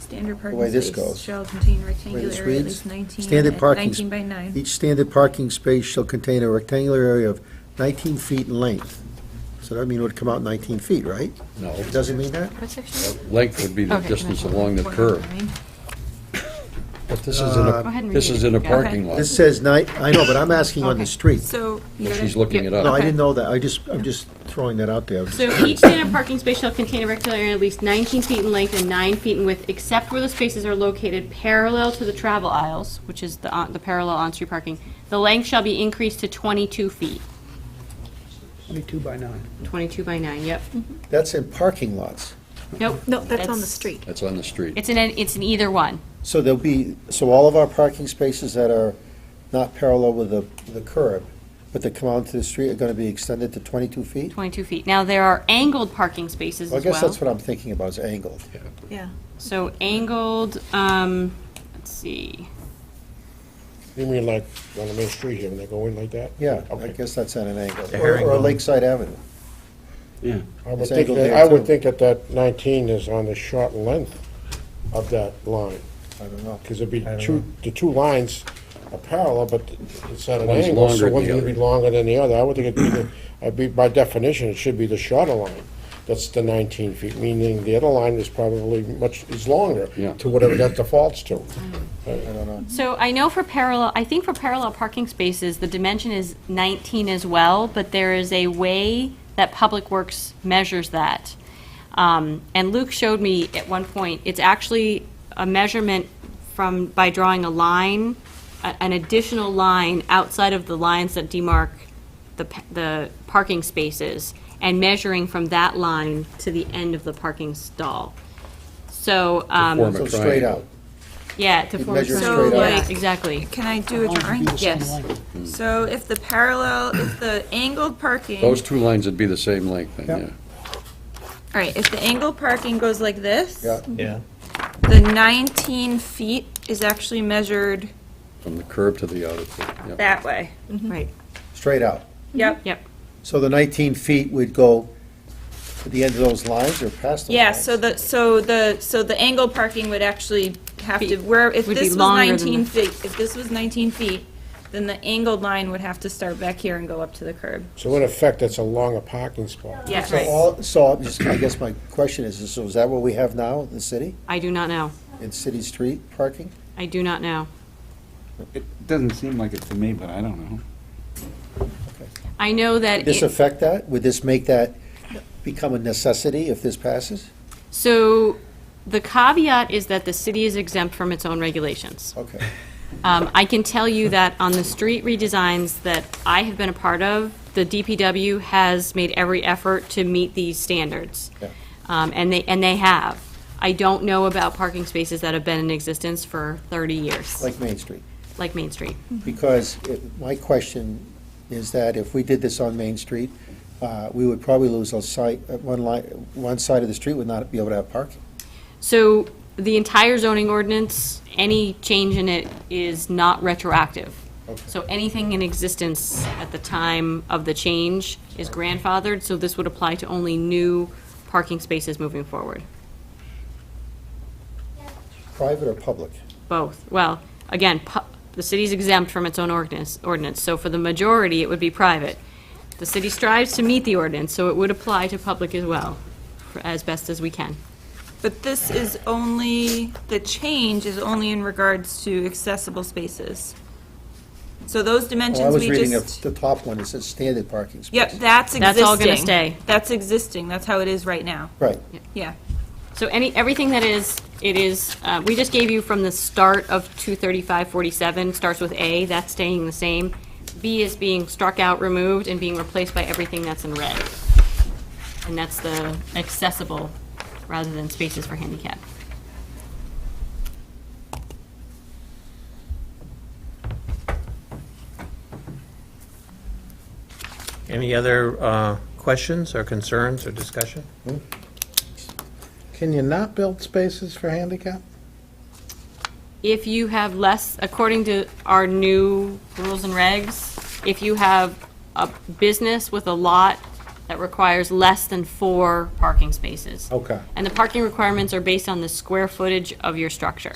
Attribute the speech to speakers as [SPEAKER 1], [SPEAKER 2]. [SPEAKER 1] standard
[SPEAKER 2] the
[SPEAKER 1] parking
[SPEAKER 2] way this
[SPEAKER 1] space
[SPEAKER 2] goes.
[SPEAKER 1] shall contain rectangular
[SPEAKER 2] this
[SPEAKER 1] area at
[SPEAKER 2] reads,
[SPEAKER 1] least 19
[SPEAKER 3] standard
[SPEAKER 1] and
[SPEAKER 3] parking
[SPEAKER 1] 19 by 9.
[SPEAKER 3] Each standard parking space shall contain a rectangular area of 19 feet in length. So that mean it would come out 19 feet, right?
[SPEAKER 4] No,
[SPEAKER 3] It doesn't mean that?
[SPEAKER 5] What section?
[SPEAKER 4] length would be the
[SPEAKER 5] Okay,
[SPEAKER 4] distance
[SPEAKER 5] that's
[SPEAKER 4] along the
[SPEAKER 5] one
[SPEAKER 4] curb.
[SPEAKER 5] nine.
[SPEAKER 4] But this is in
[SPEAKER 3] Uh,
[SPEAKER 5] Go
[SPEAKER 4] a,
[SPEAKER 5] ahead and
[SPEAKER 4] this
[SPEAKER 5] read
[SPEAKER 4] is
[SPEAKER 5] it.
[SPEAKER 4] in a
[SPEAKER 5] Yeah.
[SPEAKER 4] parking lot.
[SPEAKER 3] This says nine, I know, but I'm asking on
[SPEAKER 5] Okay.
[SPEAKER 3] the street.
[SPEAKER 1] So, you
[SPEAKER 4] Well,
[SPEAKER 1] gotta-
[SPEAKER 4] She's looking it
[SPEAKER 3] No, I
[SPEAKER 4] up.
[SPEAKER 3] didn't know that, I just, I'm just throwing that out there.
[SPEAKER 5] So each standard parking space shall contain a rectangular area at least 19 feet in length and 9 feet in width, except where the spaces are located parallel to the travel aisles, which is the, on- the parallel on-street parking. The length shall be increased to 22 feet,
[SPEAKER 6] Twenty-two by nine.
[SPEAKER 5] 22 by 9, yep.
[SPEAKER 3] That's in parking lots.
[SPEAKER 5] Nope.
[SPEAKER 1] no, that's on the street.
[SPEAKER 4] That's on the street.
[SPEAKER 5] It's in, an- it's in either one.
[SPEAKER 3] So there'll be, so all of our parking spaces that are not parallel with the, the curb, but that come out into the street are gonna be extended to 22 feet?
[SPEAKER 5] 22 feet. Now, there are angled parking spaces
[SPEAKER 3] Well, I
[SPEAKER 5] as
[SPEAKER 3] guess that's
[SPEAKER 5] well.
[SPEAKER 3] what I'm thinking about, is angled.
[SPEAKER 1] Yeah.
[SPEAKER 5] So angled, um, let's see,
[SPEAKER 7] You mean like on the main street here, when they go in like that?
[SPEAKER 3] Yeah, I
[SPEAKER 7] Okay.
[SPEAKER 3] guess that's at an angle.
[SPEAKER 8] The
[SPEAKER 3] Or- Or
[SPEAKER 8] herringbone.
[SPEAKER 3] Lakeside Avenue.
[SPEAKER 4] Yeah.
[SPEAKER 7] I would
[SPEAKER 3] It's
[SPEAKER 7] think,
[SPEAKER 3] angled
[SPEAKER 7] that-
[SPEAKER 3] there,
[SPEAKER 7] I
[SPEAKER 3] too.
[SPEAKER 7] would think that that 19 is on the short length of that line,
[SPEAKER 3] I don't know.
[SPEAKER 7] because it'd be
[SPEAKER 8] don't
[SPEAKER 7] two, the two lines are parallel, but it's at an
[SPEAKER 4] One's
[SPEAKER 7] angle,
[SPEAKER 4] longer
[SPEAKER 7] so
[SPEAKER 4] than
[SPEAKER 7] one's
[SPEAKER 4] the
[SPEAKER 7] gonna be
[SPEAKER 4] other.
[SPEAKER 7] longer than the other. I would think it'd be, the- I'd be, by definition, it should be the shorter line. That's the 19 feet, meaning the other line is probably much, is longer
[SPEAKER 4] Yeah.
[SPEAKER 7] to whatever that defaults to.
[SPEAKER 5] So I know for parallel, I think for parallel parking spaces, the dimension is 19 as well, but there is a way that Public Works measures that. Um, And Luke showed me at one point, it's actually a measurement from, by drawing a line, a- an additional line outside of the lines that demarc the, pa- the parking spaces, and measuring from that line to the end of the parking stall. So. um,
[SPEAKER 4] form a
[SPEAKER 3] So straight
[SPEAKER 4] triangle.
[SPEAKER 3] out.
[SPEAKER 5] yeah, to
[SPEAKER 3] It
[SPEAKER 5] form a
[SPEAKER 3] measures
[SPEAKER 5] triangle,
[SPEAKER 1] straight up.
[SPEAKER 5] right, exactly.
[SPEAKER 1] Can I do a drawing?
[SPEAKER 5] Yes.
[SPEAKER 1] So if the parallel, if the angled parking.
[SPEAKER 4] Those two lines would be the same length then, yeah.
[SPEAKER 1] All right, if the angled parking goes like this.
[SPEAKER 3] Yeah.
[SPEAKER 8] Yeah.
[SPEAKER 1] The 19 feet is actually measured
[SPEAKER 4] From the curb to the other, yeah.
[SPEAKER 1] that way.
[SPEAKER 5] Right,
[SPEAKER 3] Straight out.
[SPEAKER 1] Yep.
[SPEAKER 5] yep.
[SPEAKER 3] So the 19 feet would go to the end of those lines or past those lines?
[SPEAKER 1] Yeah, so the, so the, so the angled parking would actually have to,
[SPEAKER 5] Be-
[SPEAKER 1] where, if
[SPEAKER 5] would be
[SPEAKER 1] this was
[SPEAKER 5] longer than
[SPEAKER 1] 19
[SPEAKER 5] the-
[SPEAKER 1] feet, if this was 19 feet, then the angled line would have to start back here and go up to the curb.
[SPEAKER 7] So in effect, that's a longer parking spot.
[SPEAKER 5] Yes.
[SPEAKER 3] So all, so I'm just- I guess my question is, so is that what we have now in the city,
[SPEAKER 5] I do not know.
[SPEAKER 3] in city street parking?
[SPEAKER 5] I do not know.
[SPEAKER 9] It doesn't seem like it to me, but I don't know.
[SPEAKER 5] I know that,
[SPEAKER 3] Would this
[SPEAKER 5] it-
[SPEAKER 3] affect that? Would this make that become a necessity if this passes?
[SPEAKER 5] so the caveat is that the city is exempt from its own regulations.
[SPEAKER 3] Okay.
[SPEAKER 5] Um, I can tell you that on the street redesigns that I have been a part of, the DPW has made every effort to meet these standards.
[SPEAKER 3] Yeah.
[SPEAKER 5] Um, And they, and they have. I don't know about parking spaces that have been in existence for 30 years,
[SPEAKER 3] Like Main Street?
[SPEAKER 5] like Main Street.
[SPEAKER 1] Mm-hmm.
[SPEAKER 3] Because it- my question is that if we did this on Main Street, uh, we would probably lose a site, uh, one line, one side of the street would not be able to have parking.
[SPEAKER 5] So the entire zoning ordinance, any change in it is not retroactive. So anything in existence at the time of the change is grandfathered, so this would apply to only new parking spaces moving forward.
[SPEAKER 3] Private or public?
[SPEAKER 5] Both, well, again, pu- the city's exempt from its own ordinance, ordinance, so for the majority, it would be private. The city strives to meet the ordinance, so it would apply to public as well, for- as best as we can.
[SPEAKER 1] But this is only, the change is only in regards to accessible spaces. So those
[SPEAKER 3] Well, Oh, I
[SPEAKER 1] dimensions
[SPEAKER 3] was
[SPEAKER 1] we
[SPEAKER 3] reading
[SPEAKER 1] just.
[SPEAKER 3] the, the top one, it says standard parking space.
[SPEAKER 1] Yep, that's existing.
[SPEAKER 5] That's all gonna stay.
[SPEAKER 1] That's existing, that's how it is right now,
[SPEAKER 3] Right.
[SPEAKER 1] yeah.
[SPEAKER 5] So any, everything that is, it is, uh, we just gave you from the start of 23547, starts with A, that's staying the same. B is being struck out, removed, and being replaced by everything that's in red. And that's the accessible, rather than spaces for handicap.
[SPEAKER 8] Any other uh, questions or concerns or discussion?
[SPEAKER 6] Can you not build spaces for handicap?
[SPEAKER 5] If you have less, according to our new rules and regs, if you have a business with a lot that requires less than four parking spaces.
[SPEAKER 3] Okay.
[SPEAKER 5] And the parking requirements are based on the square footage of your structure.